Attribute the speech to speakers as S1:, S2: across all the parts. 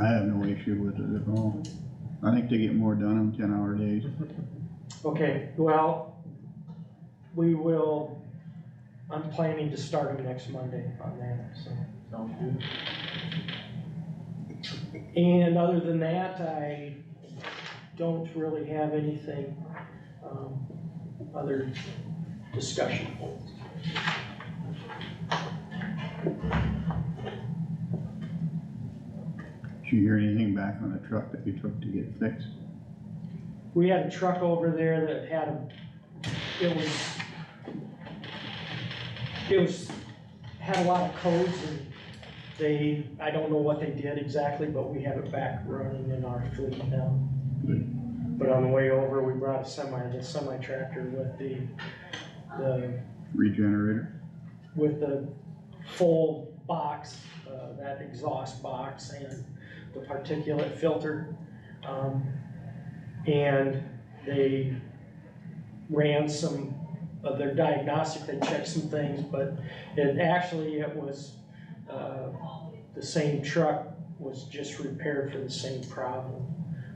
S1: I have no issue with it at all. I think they get more done on ten hour days.
S2: Okay, well, we will, I'm planning to start him next Monday on that, so.
S3: Sounds good.
S2: And other than that, I don't really have anything, um, other discussion.
S1: Did you hear anything back on the truck that you took to get fixed?
S2: We had a truck over there that had a, it was, it was, had a lot of codes and they, I don't know what they did exactly, but we have it back running in our fleet now. But on the way over, we brought a semi, the semi tractor with the, the,
S1: Regenerator?
S2: with the full box, uh, that exhaust box and the particulate filter. Um, and they ran some of their diagnostic, they checked some things, but it actually, it was, uh, the same truck was just repaired for the same problem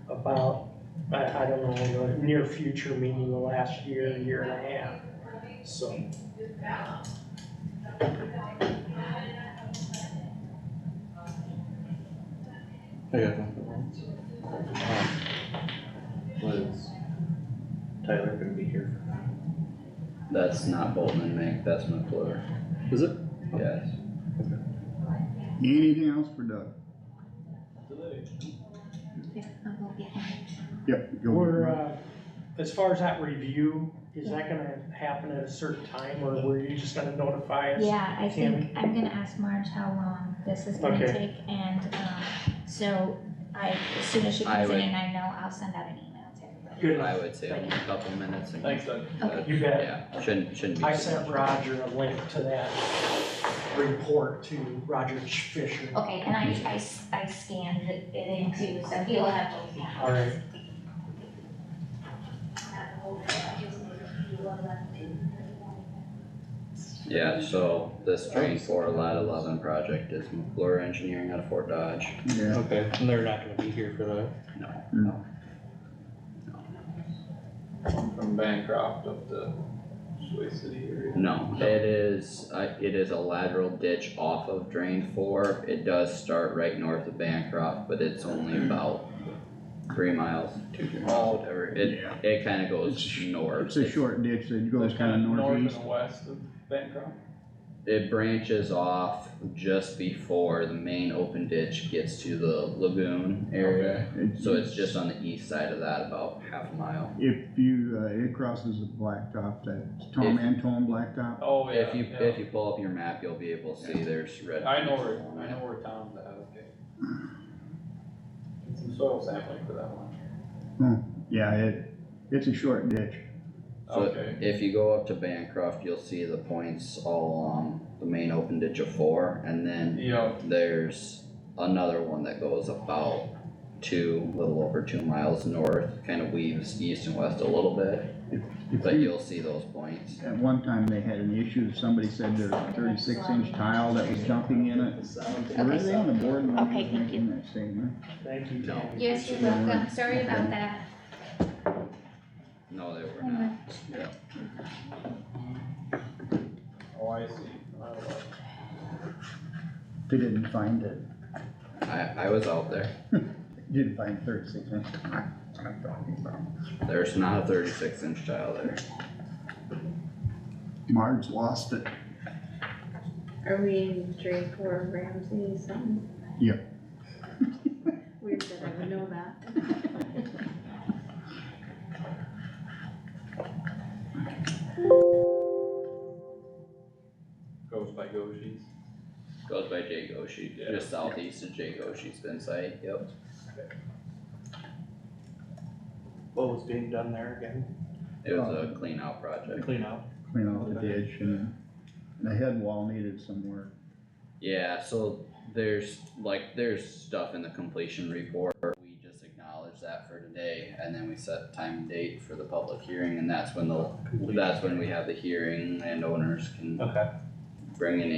S2: about, I, I don't know, the near future, meaning the last year, year and a half, so.
S3: I got nothing else. Was Tyler gonna be here?
S4: That's not Bolton and Mink, that's McClure,
S3: Is it?
S4: yes.
S1: Anything else for Doug?
S5: Yeah, I'll go get mine.
S1: Yep, go.
S2: We're, uh, as far as that review, is that gonna happen at a certain time, or were you just gonna notify us?
S5: Yeah, I
S2: Tammy?
S5: think, I'm gonna ask Marge how long this is gonna
S2: Okay.
S5: take, and, um, so I, as soon as she
S4: I
S5: comes in
S4: would-
S5: and I know, I'll send out an email to everybody.
S2: Good,
S4: I would say only a couple minutes. and-
S3: Thanks, Doug.
S4: but,
S2: you bet.
S4: Yeah, shouldn't, shouldn't be.
S2: I
S4: too
S2: sent
S4: much.
S2: Roger a link to that report to Roger Fisher.
S5: Okay, and I, I, s- I scanned it in too, so he'll have those now.
S2: All right.
S4: Yeah, so this drain four lot eleven project is McClure Engineering out of Fort Dodge.
S1: Yeah,
S3: Okay, and they're not gonna be here for that.
S1: no,
S6: From Bancroft up to Soy City area.
S4: No, it is, uh, it is a lateral ditch off of drain four. It does start right north of Bancroft, but it's only about three miles, two, three miles, whatever. It,
S1: Yeah.
S4: it kinda
S1: It's
S4: goes
S1: a sh-
S4: north.
S1: It's a short ditch that goes
S6: They're
S1: kinda northeast.
S6: North and west of Bancroft.
S4: It branches off just before the main open ditch gets to the lagoon area. So it's just on the east side of that, about half a mile.
S1: If you, uh, it crosses the blacktop, that Tom
S4: If-
S1: Antone blacktop.
S6: Oh, yeah,
S4: If you,
S6: yeah.
S4: if you pull up your map, you'll be able to see there's red.
S6: I know
S4: lines
S6: where,
S4: along
S6: I
S4: it.
S6: know where Tom's at, okay. Get Some soil sampling for that one.
S1: Yeah, it, it's a short ditch.
S4: So-
S6: Okay,
S4: If you go up to Bancroft, you'll see the points all along the main open ditch of four, and then
S6: yeah,
S4: there's another one that goes about two, little over two miles north, kind of weaves east and west a little bit,
S1: If
S4: but
S1: you-
S4: you'll see those points.
S1: At one time, they had an issue, somebody said there's a thirty-six inch tile that was dumping in it. Were they on the board when he
S5: Okay,
S1: was
S5: thank you.
S1: making that statement?
S2: Thank you,
S4: No.
S2: Tammy.
S5: Yes, you're welcome, sorry about that.
S4: No, they were not. Yeah.
S6: oh, I see. Oh, well.
S1: They didn't find it,
S4: I, I was out there.
S1: didn't find thirty-six inch tile, that's what I'm talking about.
S4: There's not a thirty-six inch tile there.
S1: Marge lost it.
S7: Are we in Drake or Ramsey something?
S1: Yeah.
S7: Weird that I would know that.
S6: Goes by Goshi's.
S4: Goes by Jay Goshi,
S6: Yeah.
S4: just southeast of Jay Goshi's bin site, yep.
S3: What was being done there again?
S4: It was a clean out
S3: The
S4: project.
S3: Clean out.
S1: Clean off the ditch and the head wall needed some work.
S4: Yeah, so there's, like, there's stuff in the completion report, we just acknowledge that for today, and then we set time and date for the public hearing, and that's when the, that's when we have the hearing, landowners can
S3: Okay.
S4: bring in